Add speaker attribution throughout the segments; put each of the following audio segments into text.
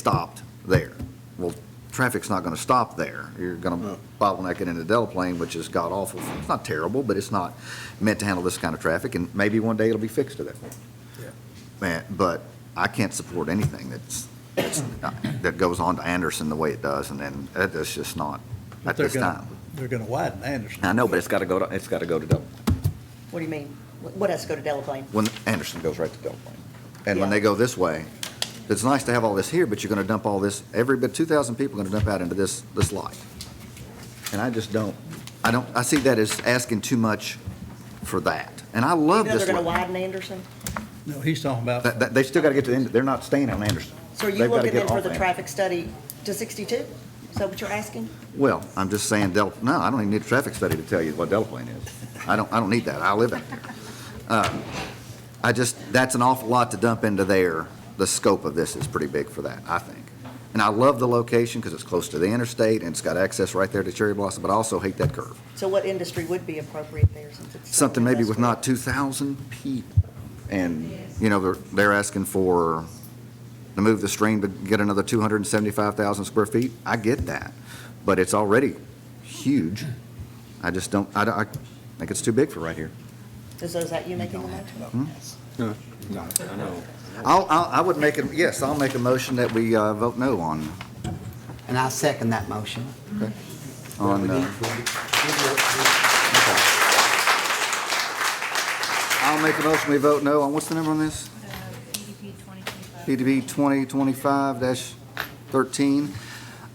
Speaker 1: stopped there. Well, traffic's not gonna stop there. You're gonna bottleneck it into Delaplane, which is god awful. It's not terrible, but it's not meant to handle this kind of traffic, and maybe one day it'll be fixed to that point. Man, but I can't support anything that's, that's, that goes on to Anderson the way it does, and then that- that's just not,
Speaker 2: But
Speaker 1: at
Speaker 2: they're
Speaker 1: this
Speaker 2: gonna-
Speaker 1: time.
Speaker 2: They're going to widen Anderson.
Speaker 1: I know, but it's gotta go to, it's gotta go to Delaplane.
Speaker 3: What do you mean? What what has to go to Delaplane?
Speaker 1: when Anderson goes right to Delaplane. And when
Speaker 3: Yeah.
Speaker 1: they go this way, it's nice to have all this here, but you're gonna dump all this, every bit, two thousand people are gonna dump out into this, this lot. And I just don't, I don't, I see that as asking too much for that. And I love
Speaker 3: Even though
Speaker 1: this
Speaker 3: they're going to
Speaker 1: one.
Speaker 3: widen Anderson?
Speaker 2: No, he's talking about,
Speaker 1: That, that, they still gotta get to the end, they're not staying on Anderson.
Speaker 3: So are you
Speaker 1: They've gotta
Speaker 3: looking
Speaker 1: get
Speaker 3: then for
Speaker 1: off
Speaker 3: the
Speaker 1: Anderson.
Speaker 3: traffic study to 62? Is that what you're asking?
Speaker 1: Well, I'm just saying Del, no, I don't even need a traffic study to tell you what Delaplane is. I don't, I don't need that. I live in there. Uh, I just, that's an awful lot to dump into there. The scope of this is pretty big for that, I think. And I love the location because it's close to the interstate and it's got access right there to Cherry Blossom, but I also hate that curve.
Speaker 3: So what industry would be appropriate there since it's?
Speaker 1: Something maybe with
Speaker 3: industrial?
Speaker 1: not two thousand people. And, you know, they're, they're asking for, to move the stream to get another two hundred and seventy-five thousand square feet. I get that, but it's already huge. I just don't, I, don't- I think it's too big for right here.
Speaker 3: Is those that you making the motion?
Speaker 1: I'll, I'll, I would make, a yes, I'll make a motion that we, uh, vote no on,
Speaker 4: And I second that motion.
Speaker 1: on, uh, I'll make a motion we vote no on, what's the number on this?
Speaker 5: EDP 2025.
Speaker 1: PDB 2025-13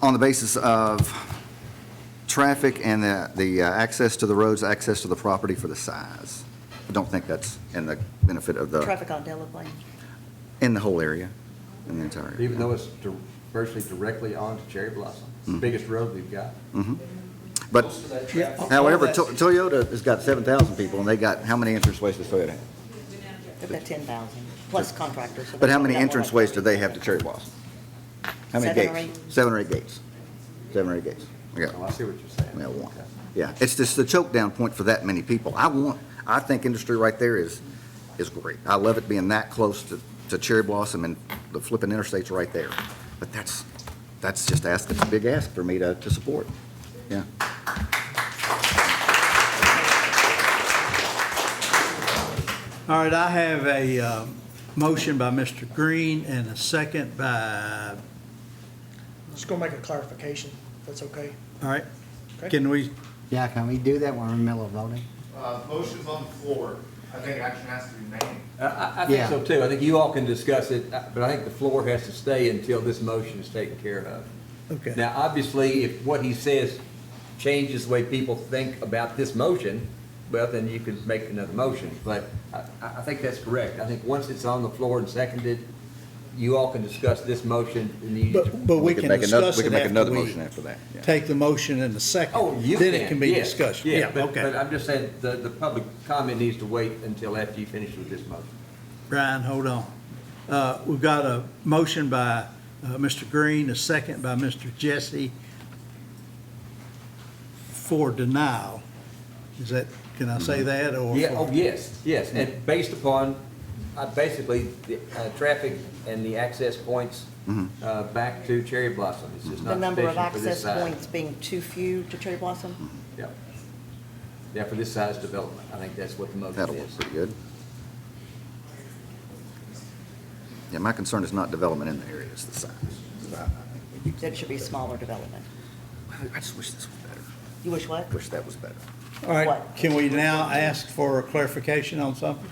Speaker 1: on the basis of traffic and the, the uh, access to the roads, access to the property for the size. I don't think that's in the benefit of the,
Speaker 3: Traffic on Delaplane.
Speaker 1: in the whole area, in the entire. area.
Speaker 6: Even though it's dir- virtually directly onto Cherry Blossom,
Speaker 1: Hmm.
Speaker 6: it's the biggest road we've got.
Speaker 1: But
Speaker 2: yeah. all- all
Speaker 1: however,
Speaker 2: that-
Speaker 1: To- Toyota has got 7,000 people and they got, how many entrance ways does Toyota have?
Speaker 3: They've got 10,000, plus contractors. so
Speaker 1: But how
Speaker 3: they've
Speaker 1: many
Speaker 3: got more like
Speaker 1: entrance ways do they have to Cherry Blossom? How many
Speaker 3: Seven or
Speaker 1: gates? Seven or eight gates. Seven or eight gates. We got
Speaker 6: Oh, I see what you're saying.
Speaker 1: Yeah, one.
Speaker 6: Okay.
Speaker 1: Yeah, it's just the choke down point for that many people. I want, I think industry right there is, is great. I love it being that close to, to Cherry Blossom and the flipping interstate's right there. But that's, that's just ask, that's a big ask for me to, to support. Yeah.
Speaker 2: All right, I have a um, motion by Mr. Green and a second by,
Speaker 7: Just gonna make a clarification, if that's okay.
Speaker 2: all right,
Speaker 7: Okay.
Speaker 2: can we,
Speaker 4: Yeah, can we do that when we're in the middle of voting?
Speaker 8: Uh, motion's on the floor. I think action has to be made.
Speaker 6: I- I, I
Speaker 4: Yeah.
Speaker 6: think so too. I think you all can discuss it, uh, but I think the floor has to stay until this motion is taken care of.
Speaker 2: Okay.
Speaker 6: Now, obviously, if what he says changes the way people think about this motion, well, then you could make another motion. But I, I I think that's correct. I think once it's on the floor and seconded, you all can discuss this motion and you.
Speaker 2: but, but we
Speaker 1: could
Speaker 2: can
Speaker 1: make another-
Speaker 2: discuss
Speaker 1: We can
Speaker 2: it
Speaker 1: make another
Speaker 2: after
Speaker 1: motion
Speaker 2: we
Speaker 1: after that. yeah.
Speaker 2: take the motion in a second.
Speaker 6: Oh, you
Speaker 2: Then it can be
Speaker 6: yes,
Speaker 2: discussed. Yeah,
Speaker 6: but- But
Speaker 2: okay.
Speaker 6: I'm just saying, the, the public comment needs to wait until after you finish with this motion.
Speaker 2: Brian, hold on. Uh, We've got a motion by uh, Mr. Green, a second by Mr. Jesse for denial. Is that, can I
Speaker 1: Mm-hmm.
Speaker 2: say that or?
Speaker 6: Yeah, oh, yes, yes, and based upon, uh, basically, the, uh, traffic and the access points,
Speaker 2: Mm-hmm.
Speaker 6: uh, back to Cherry Blossom, it's just
Speaker 3: The
Speaker 6: not
Speaker 3: number of
Speaker 6: sufficient for this
Speaker 3: access
Speaker 6: size.
Speaker 3: points being too few to Cherry Blossom?
Speaker 6: Yeah, yeah, for this size development, I think that's what the motion
Speaker 1: That'll work
Speaker 6: is.
Speaker 1: pretty good. Yeah, my concern is not development in the area, it's the size.
Speaker 3: That should be smaller development.
Speaker 1: I just wish this was better.
Speaker 3: You wish what?
Speaker 1: Wish that was better.
Speaker 2: All right,
Speaker 3: What?
Speaker 2: can we now ask for clarification on something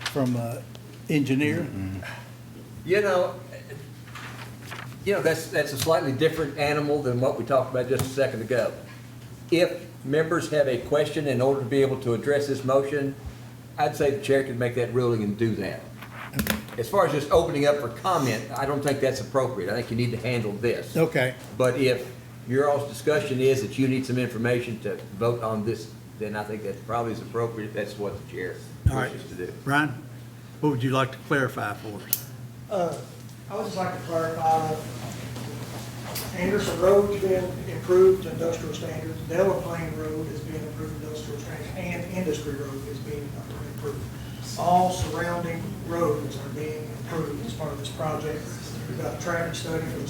Speaker 2: from uh, engineer?
Speaker 6: You know, you know, that's, that's a slightly different animal than what we talked about just a second ago. If members have a question in order to be able to address this motion, I'd say the chair can make that ruling and do that. As far as just opening up for comment, I don't think that's appropriate. I think you need to handle this.
Speaker 2: Okay,
Speaker 6: But if your all's discussion is that you need some information to vote on this, then I think that's probably is appropriate. That's what the chair
Speaker 2: all right.
Speaker 6: wishes to do.
Speaker 2: Brian, what would you like to clarify for us?
Speaker 7: Uh, I would just like to clarify, Anderson Road has been improved to industrial standards, Delaplane Road is being improved to industrial standards, and Industry Road is being improved. All surrounding roads are being improved as part of this project. We've got a traffic study for the